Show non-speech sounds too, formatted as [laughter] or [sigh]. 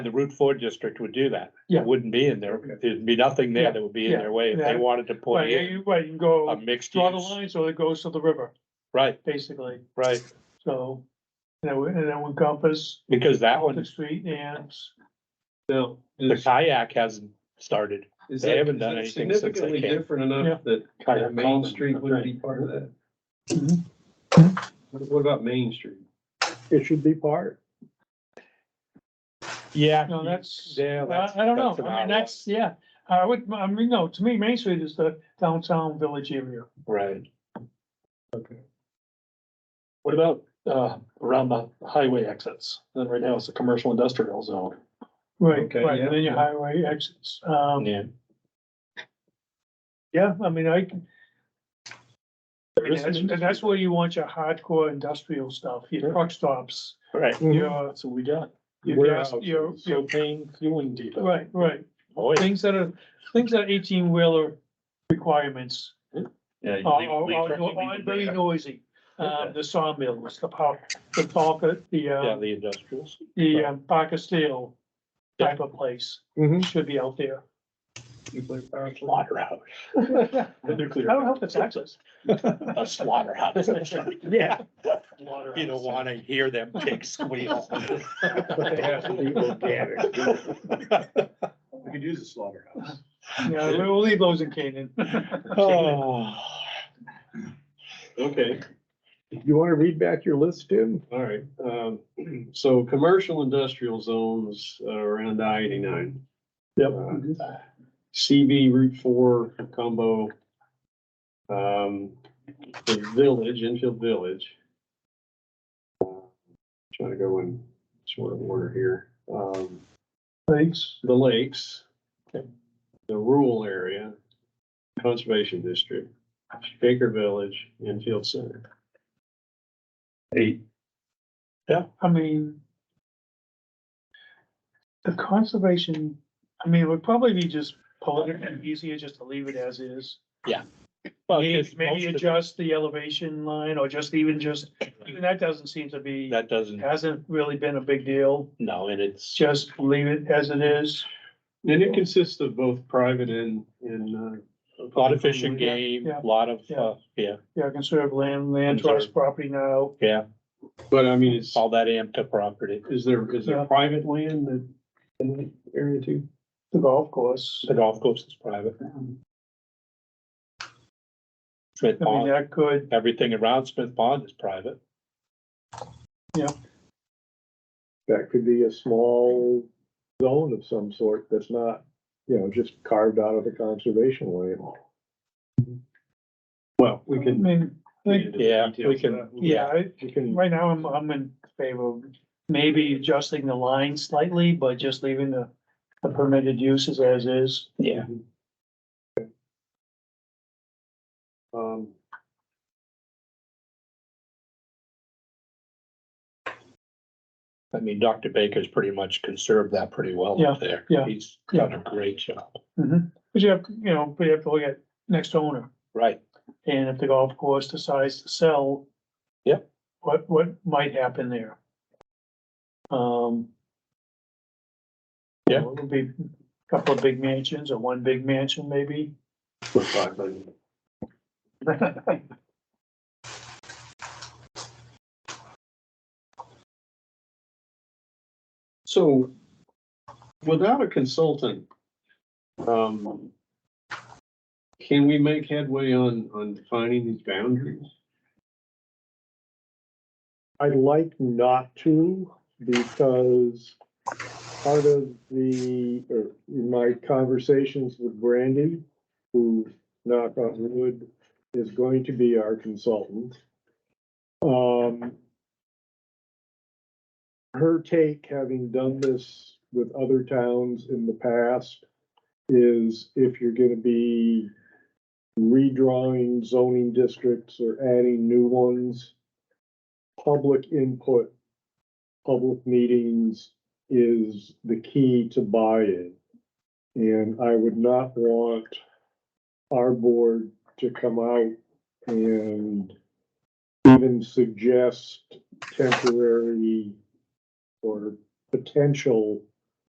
the Route Four district would do that. Yeah. It Wouldn't be in there, there'd be nothing Yeah, there that would be in yeah, their way if they yeah. wanted to put Right, yeah, in you, right, you can a Um, go, mixed draw the use. line so it goes to the river, Right, basically, right, so. And that would, and that would encompass because that the one, street and, Now, the is, kayak hasn't started. is they that haven't is done that anything since they significantly came. different Yeah. enough that that Main Street wouldn't be part of that? Mhm. What what about Main Street? It should be part. Yeah. no, that's, Oh, Yeah, I, that's- I don't know, an I mean, odd that's, yeah. I would, I mean, no, to me, Main Street is the downtown village area. one. Right. What about, uh, around the highway exits? Then right now it's a commercial industrial zone. Right, Okay, right, yeah. and then your highway exits, um, Yeah, yeah, I mean, I can. I mean, is that's- Main And that's where you want your hardcore industrial stuff, your Yeah. truck stops, right. your, Mm-hmm. That's what we got. your, gas- Warehouses, your, your, propane fueling depot. right, right. Boy, Things that are, things that are eighteen wheeler requirements yeah, are, are, are- are very noisy. Um, the sawmills, the power, the Parker, the, yeah, uh, the industrials. the um, Parker Steel type of place Mhm. should be out there. Nuclear power [laughs] plant? Slaughterhouse. I The nuclear. don't know if it's access. A [laughs] slaughterhouse. Yeah. You don't wanna hear them pig [laughs] squeal. [laughs] We could use a slaughterhouse. Yeah, we'll leave those in Canaan. Oh, Okay, You wanna read back your list, Tim? all right. Um, [clears throat] so commercial industrial zones uh, around I eighty-nine. Yep. Uh, CB Route Four combo. Um, the village, Enfield Village. Uh, Trying to go in sort of order here. Um, Thanks. the lakes, the rural area, conservation district, Shaker Village, Enfield Center. I mean. The conservation, I mean, it would probably be just politically easier just to leave it as is. well, Maybe 'cause maybe most of- adjust the elevation line or just even just, even that doesn't seem to be, That doesn't, hasn't really been a big deal. no, and it's, Just leave it as it is. And it consists of both private and, and, uh. a lot of fishing game, Yeah. a lot of, Yeah. uh, yeah, Yeah, conserve land, land trust property now. yeah, But I mean, it's, all that AMCA property, is there, is Yeah. there private land that, in the area too? The golf course. the golf course is private. Smith I mean, Pond, that could, everything around Smith Pond is private. That could be a small zone of some sort that's not, you know, just carved out of the conservation land. Well, we I can. mean, Um, I think Yeah, we can- Yeah, I- You can, right now I'm, I'm in favor of maybe adjusting the line slightly, but just leaving the, the permitted uses as is. Yeah. Um. I mean, Dr. Baker's pretty much conserved that pretty well up there. yeah, He's done a great job. But you have, you know, but you have to look at next owner Right, and if the golf course decides to sell. Yep. What, what might happen there? Um. Yeah. It would be a couple of big mansions or one big mansion maybe. [laughs] for private. So, without a consultant, um, can we make headway on, on defining these boundaries? I'd like not to because part of the, or in my conversations with Brandy, who knock on wood, is going to be our consultant. Um, her take, having done this with other towns in the past, is if you're gonna be redrawing zoning districts or adding new ones, public input, public meetings is the key to buy-in. And I would not want our board to come out and even suggest temporary or potential